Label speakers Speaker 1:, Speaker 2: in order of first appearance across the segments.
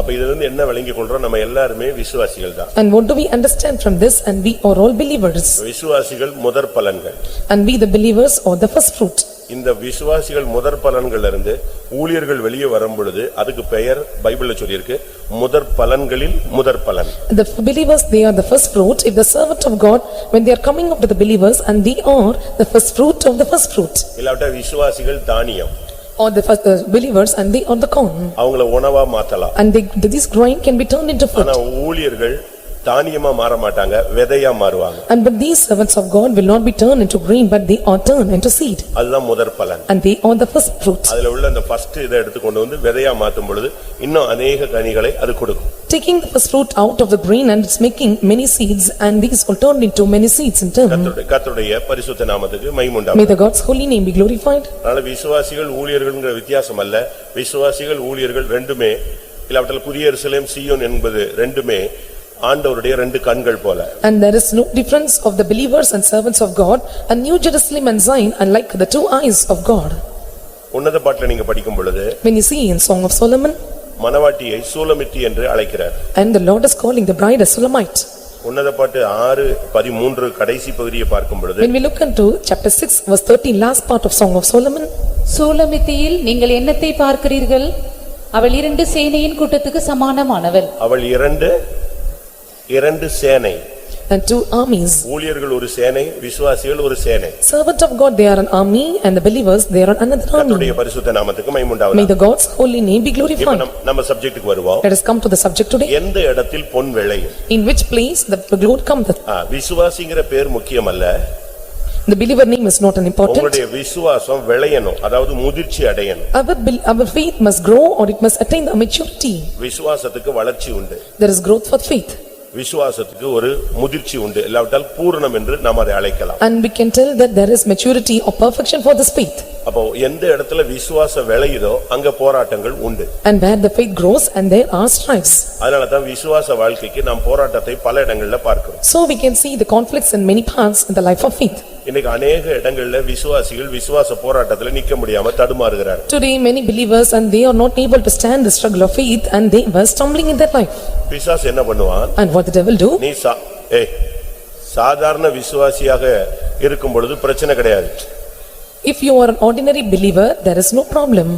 Speaker 1: அப்ப இதுல இருந்து என்ன விளங்கி கொள்றோம் நம்ம எல்லாருமே விசுவாசிகள் தான்
Speaker 2: And what do we understand from this? And we are all believers.
Speaker 1: விசுவாசிகள் முதற் பலன்கள்
Speaker 2: And we the believers are the first fruit.
Speaker 1: இந்த விசுவாசிகள் முதற் பலன்கள்ல இருந்து ஊழியர்கள் வெளியே வரும் பொழுது அதுக்கு பெயர் பைபிள்ல சொல்லியிருக்கு முதற் பலன்களில் முதற் பலன்
Speaker 2: The believers, they are the first fruit. If the servant of God, when they are coming up to the believers and they are the first fruit of the first fruit.
Speaker 1: இல்லாவிட்டா விசுவாசிகள் தானியம்
Speaker 2: Or the first uh, believers and they are the corn.
Speaker 1: அவங்கள உணவா மாத்தலாம்
Speaker 2: And they, this grain can be turned into
Speaker 1: ஆனா
Speaker 2: fruit.
Speaker 1: ஊழியர்கள் தானியமா மாற மாட்டாங்க விதையா மாறுவாங்க
Speaker 2: And but these servants of God will not be turned into grain but they are turned into seed.
Speaker 1: அதுதான் முதற் பலன்
Speaker 2: And they are the first fruit.
Speaker 1: அதுல உள்ள அந்த ஃபர்ஸ்ட் இதை எடுத்து கொண்டு வந்து விதையா மாத்தும் பொழுது இன்னும் அநேக கனிகளை அது கொடுக்கும்
Speaker 2: Taking the first fruit out of the grain and it's making many seeds and these will turn into many seeds in turn.
Speaker 1: கர்த்தருடைய- கர்த்தருடைய பரிசுத்த நாமத்துக்கு மைமுண்டா
Speaker 2: May the God's holy name be glorified.
Speaker 1: அதனால விசுவாசிகள் ஊழியர்கள்ங்கிற வித்தியாசம் அல்ல விசுவாசிகள் ஊழியர்கள் ரெண்டுமே இல்லாவிட்டால் புதிய எருசலேம் சீயோன் என்பது ரெண்டுமே ஆண்டவருடைய ரெண்டு கண்கள் போல
Speaker 2: And there is no difference of the believers and servants of God and New Jerusalem and Zion are like the two eyes of God.
Speaker 1: உன்னத பாட்டில நீங்க படிக்கும் பொழுது
Speaker 2: When you see in Song of Solomon
Speaker 1: மணவாட்டியை Shulamite என்று அழைக்கிறார்
Speaker 2: and the Lord is calling the bride a Sulamite.
Speaker 1: உன்னத பாட்டு ஆறு பதிமூன்று கடைசி பகுதியை பார்க்கும் பொழுது
Speaker 2: When we look into chapter six verse thirteen last part of Song of Solomon
Speaker 3: சூலமித்தியில் நீங்கள் என்னத்தை பார்க்கிறீர்கள் அவள் இரண்டு சேனையின் கூட்டத்துக்கு சமானமானவள்
Speaker 1: அவள் இரண்டு இரண்டு சேனை
Speaker 2: and two armies.
Speaker 1: ஊழியர்கள் ஒரு சேனை விசுவாசிகள் ஒரு சேனை
Speaker 2: Servant of God they are an army and the believers they are another army.
Speaker 1: கர்த்தருடைய பரிசுத்த நாமத்துக்கு மைமுண்டாவது
Speaker 2: May the God's holy name be
Speaker 1: இப்ப
Speaker 2: glorified.
Speaker 1: நம்- நம்ம சப்ஜெக்ட்டுக்கு வருவோம்
Speaker 2: Let us come to the subject today.
Speaker 1: எந்த இடத்தில் பொன் விளையும்
Speaker 2: In which place the glory comes,
Speaker 1: ஆ, விசுவாசிங்கிற பேர் முக்கியமல்ல
Speaker 2: the believer name is not an important.
Speaker 1: உங்களுடைய விசுவாசம் விளையணும் அதாவது முதிர்ச்சி அடையணும்
Speaker 2: Our bel- our faith must grow or it must attain the maturity.
Speaker 1: விசுவாசத்துக்கு வளர்ச்சி உண்டு
Speaker 2: There is growth for faith
Speaker 1: விசுவாசத்துக்கு ஒரு முதிர்ச்சி உண்டு இல்லாவிட்டால் பூரணம் என்று நாம் அதை அழைக்கலாம்
Speaker 2: and we can tell that there is maturity or perfection for this faith.
Speaker 1: அப்போ எந்த இடத்துல விசுவாசம் விளையுதோ அங்க போராட்டங்கள் உண்டு
Speaker 2: And where the faith grows and there are strifes.
Speaker 1: அதனால தான் விசுவாச வாழ்க்கைக்கு நாம் போராட்டத்தை பல இடங்கள்ல பார்க்கிறோம்
Speaker 2: So we can see the conflicts in many parts in the life of faith.
Speaker 1: இன்னைக்கு அநேக இடங்கள்ல விசுவாசிகள் விசுவாச போராட்டத்துல நிக்க முடியாம தடுமாறுகிறார்
Speaker 2: Today, many believers and they are not able to stand the struggle of faith and they were stumbling in their life.
Speaker 1: பிசாசு என்ன பண்ணுவான்
Speaker 2: And what the devil do?
Speaker 1: நீ சா ஏய் சாதாரண விசுவாசியாக இருக்கும் பொழுது பிரச்சனை கிடையாது
Speaker 2: If you are an ordinary believer, there is no problem.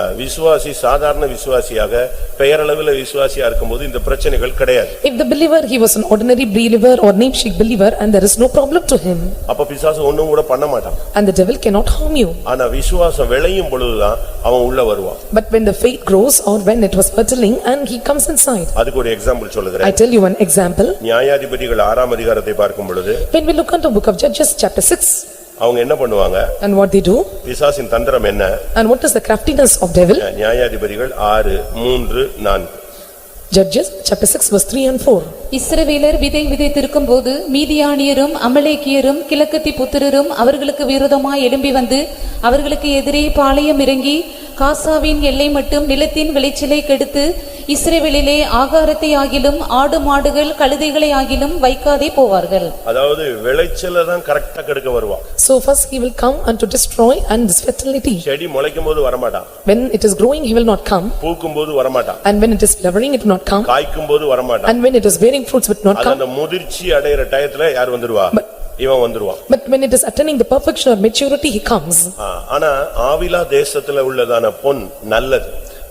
Speaker 1: அஹ், விசுவாசி சாதாரண விசுவாசியாக பெயரளவில் விசுவாசியா இருக்கும்போது இந்த பிரச்சனைகள் கிடையாது
Speaker 2: If the believer, he was an ordinary believer or namesake believer and there is no problem to him.
Speaker 1: அப்ப பிசாசு ஒண்ணும் கூட பண்ண மாட்டான்
Speaker 2: And the devil cannot harm you.
Speaker 1: ஆனா விசுவாசம் விளையும் பொழுதுதான் அவன் உள்ள வருவான்
Speaker 2: But when the faith grows or when it was fertile and he comes inside.
Speaker 1: அதுக்கு ஒரு எக்ஸாம்பிள்
Speaker 2: I
Speaker 1: சொல்லுகிறேன்
Speaker 2: tell you one example.
Speaker 1: நியாயாதிபதிகள் ஆறாம் அதிகாரத்தை பார்க்கும் பொழுது
Speaker 2: When we look into book of Judges, chapter six,
Speaker 1: அவங்க என்ன பண்ணுவாங்க
Speaker 2: and what they do,
Speaker 1: பிசாசின் தந்திரம் என்ன
Speaker 2: and what is the craftiness of devil?
Speaker 1: அஹ், நியாயாதிபதிகள் ஆறு மூன்று நான்கு
Speaker 2: Judges, chapter six, verse three and four.
Speaker 3: இஸ்ரவேலர் விதை விதைத்திருக்கும்போது மீதியானியரும் அமலேக்கியரும் கிழக்கத்தி புத்திரரும் அவர்களுக்கு விரோதமாய் எழும்பி வந்து அவர்களுக்கு எதிரே பாளையம் இறங்கி காசாவின் எல்லை மட்டும் நிலத்தின் விளைச்சலை கெடுத்து இஸ்ரவேலிலே ஆகாரத்தை ஆகிலும் ஆடு மாடுகள் கழுதைகளை ஆகிலும் வைக்காதே போவார்கள்
Speaker 1: அதாவது விளைச்சல தான் கரெக்டா கெடுக்க வருவான்
Speaker 2: So first he will come and to destroy and this fertility.
Speaker 1: செடி முளைக்கும் போது வரமாட்டான்
Speaker 2: When it is growing, he will not come,
Speaker 1: பூக்கும் போது வரமாட்டான்
Speaker 2: and when it is flowering, it will not come,
Speaker 1: காய்க்கும் போது வரமாட்டான்
Speaker 2: and when it is bearing fruits, it will not
Speaker 1: அது
Speaker 2: come.
Speaker 1: அந்த முதிர்ச்சி அடையிற டயத்துல யார் வந்துருவா இவன் வந்துருவான்
Speaker 2: But when it is attaining the perfection or maturity, he comes.
Speaker 1: ஆ, ஆனா ஆவிலா தேசத்துல உள்ளதான பொன் நல்லது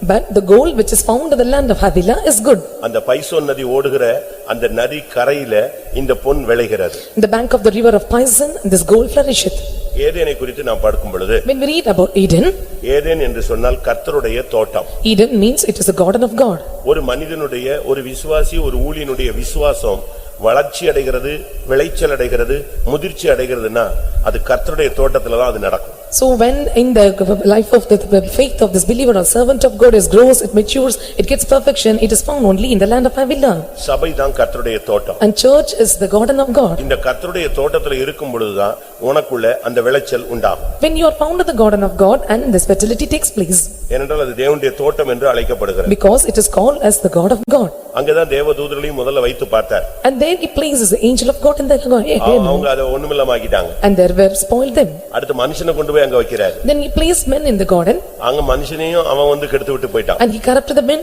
Speaker 2: But the gold which is found in the land of Havilah is good.
Speaker 1: அந்த பைசோன் நதி ஓடுகிற அந்த நதி கரையில இந்த பொன் விளைகிறது
Speaker 2: In the bank of the river of Pison, this gold flourisheth.
Speaker 1: ஏதேனை குறித்து நான் பார்க்கும் பொழுது
Speaker 2: When we read about Eden,
Speaker 1: ஏதேன் என்று சொன்னால் கர்த்தருடைய தோட்டம்
Speaker 2: Eden means it is the garden of God.
Speaker 1: ஒரு மனிதனுடைய ஒரு விசுவாசி ஒரு ஊழியனுடைய விசுவாசம் வளர்ச்சி அடைகிறது விளைச்சல் அடைகிறது முதிர்ச்சி அடைகிறதுன்னா அது கர்த்தருடைய தோட்டத்துல தான் அது நடக்கும்
Speaker 2: So when in the life of the the faith of this believer or servant of God is grows, it matures, it gets perfection, it is found only in the land of Havilah.
Speaker 1: சபை தான் கர்த்தருடைய தோட்டம்
Speaker 2: And church is the garden of God.
Speaker 1: இந்த கர்த்தருடைய தோட்டத்துல இருக்கும் பொழுதுதான் உனக்குள்ள அந்த விளைச்சல் உண்டாகும்
Speaker 2: When you are found in the garden of God and this fertility takes place
Speaker 1: ஏனென்றால் அது தேவனுடைய தோட்டம் என்று அழைக்கப்படுகிறது
Speaker 2: because it is called as the God of God.
Speaker 1: அங்கதான் தேவதூதர்களையும் முதல்ல வைத்து பார்த்தார்
Speaker 2: And there he places the angel of God in the
Speaker 1: அவ-
Speaker 2: garden
Speaker 1: அவங்க அதை ஒண்ணுமில்லமாக்கிட்டாங்க
Speaker 2: and there were spoiled them.
Speaker 1: அடுத்து மனுஷனை கொண்டு போய் அங்க வைக்கிறாரு
Speaker 2: Then he placed men in the garden
Speaker 1: அங்க மனுஷனையும் அவன் வந்து கெடுத்து விட்டு போயிட்டான்
Speaker 2: and he corrupted the men